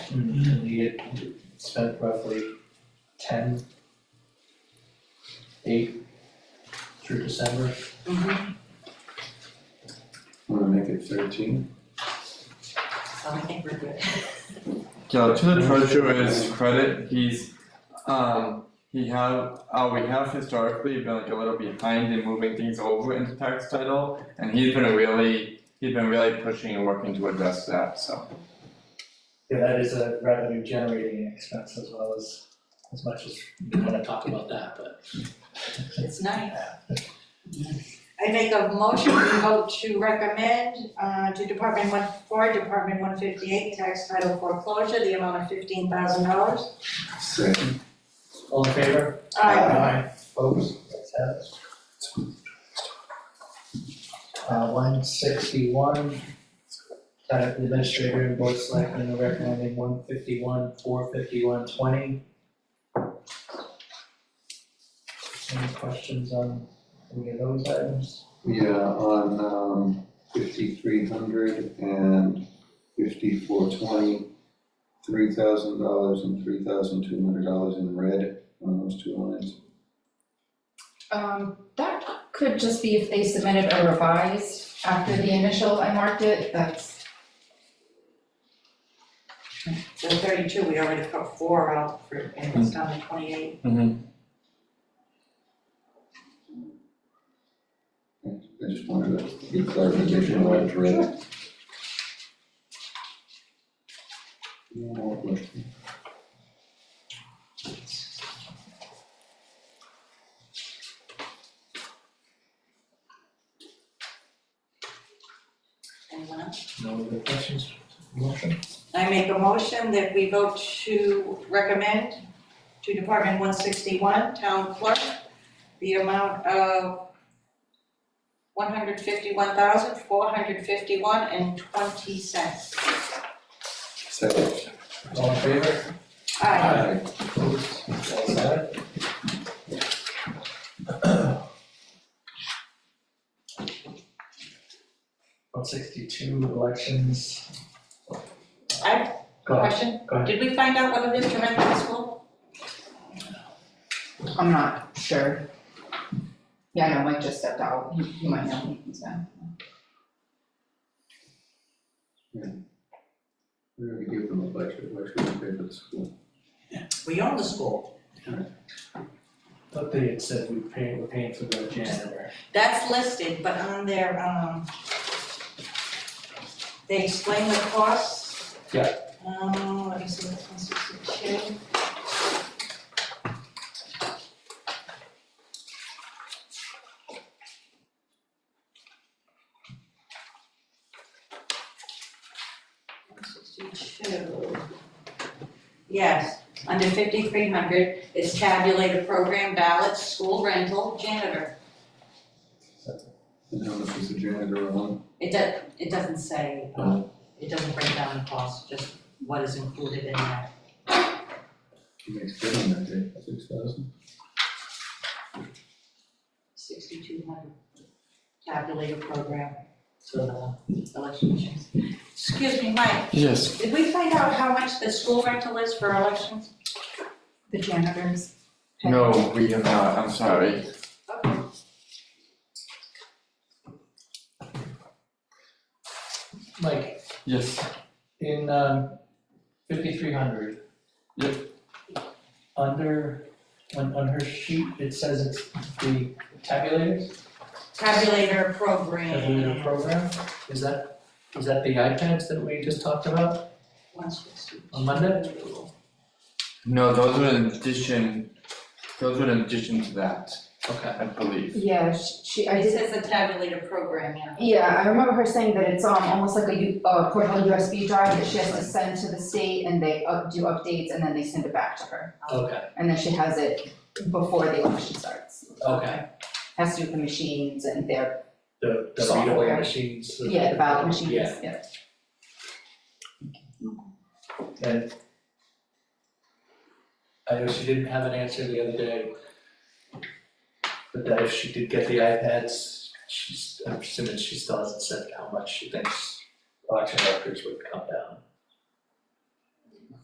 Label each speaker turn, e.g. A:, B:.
A: and Mm-hmm. we had spent roughly ten, eight through December.
B: Mhm.
C: Wanna make it thirteen?
B: So I think we're good.
D: Yeah, to the treasurer's credit, he's, um, he have, uh, we have historically been like a little behind in moving things over into tax title. And he's been really, he's been really pushing and working to address that, so.
A: Yeah, that is a revenue generating expense as well as, as much as we wanna talk about that, but
B: It's nice. I make a motion, we vote to recommend uh to Department one four, Department one fifty-eight, tax title foreclosure, the amount of fifteen thousand dollars.
C: Second.
A: all in favor?
B: Uh,
A: Opposed, that's it. Uh, one sixty-one, Senate Administrator and Board of Selectmen are recommending one fifty-one, four fifty-one, twenty. Any questions on any of those items?
C: Yeah, on um fifty-three hundred and fifty-four twenty, three thousand dollars and three thousand two hundred dollars in red on those two lines.
E: Um, that could just be if they submitted a revised after the initial, I marked it, that's,
B: So thirty-two, we already put four out for, and it's down to twenty-eight.
C: I just wanted to get clarification on that red. One more question.
B: Anyone else?
A: No other questions? Motion?
B: I make a motion that we vote to recommend to Department one sixty-one, Town Clerk, the amount of one hundred fifty-one thousand, four hundred fifty-one and twenty cents.
C: Second.
A: All in favor?
B: Aye.
A: Opposed, that's it. One sixty-two, elections.
B: I-
A: Go ahead.
B: Question,
A: Go ahead.
B: did we find out whether Mr. Renton to school?
E: I'm not sure. Yeah, no, Mike just stepped out, He- he might know, he's been.
C: We're gonna give them a budget, why should we pay for the school?
B: We own the school.
A: Thought they had said we pay, we're paying for the janitor.
B: That's listed, but on their, um, they explain the costs.
A: Yeah.
B: Um, let me see, one sixty-two. One sixty-two. Yes, under fifty-three hundred is tabulated program ballots, school rental, janitor.
C: And how much is the janitor on?
B: It does, it doesn't say, uh,
C: Uh-huh.
B: it doesn't break down the cost, just what is included in that.
C: He makes good on that day, six thousand?
B: Sixty-two hundred calculator program, so the election machines. Excuse me, Mike,
D: Yes.
B: did we find out how much the school rental is for elections?
E: The janitors.
D: No, we have not, I'm sorry.
B: Okay.
A: Mike,
D: Yes.
A: in um fifty-three hundred.
D: Yep.
A: Under, on on her sheet, it says it's the tabulators, tabulator
B: Tabulator program,
A: program, is that, is that the iPads that we just talked about
B: one sixty-two.
A: on Monday?
D: No, those were in addition, those were in addition to that,
A: Okay,
D: I believe.
E: Yeah, she- she, I
B: It
E: did,
B: says the tabulator program, yeah.
E: yeah, I remember her saying that it's um almost like a U, uh portable USB drive that she has to send to the state and they up, do updates and then they send it back to her.
A: okay,
E: And then she has it before the election starts,
A: okay,
E: has to do with the machines and their,
A: the the read-only
E: Software.
A: machines. the-
E: yeah, the ballot machines,
A: Yeah,
E: yeah.
A: and I know she didn't have an answer the other day. But that if she did get the iPads, she's, I'm assuming she still hasn't said how much she thinks auction records would come down.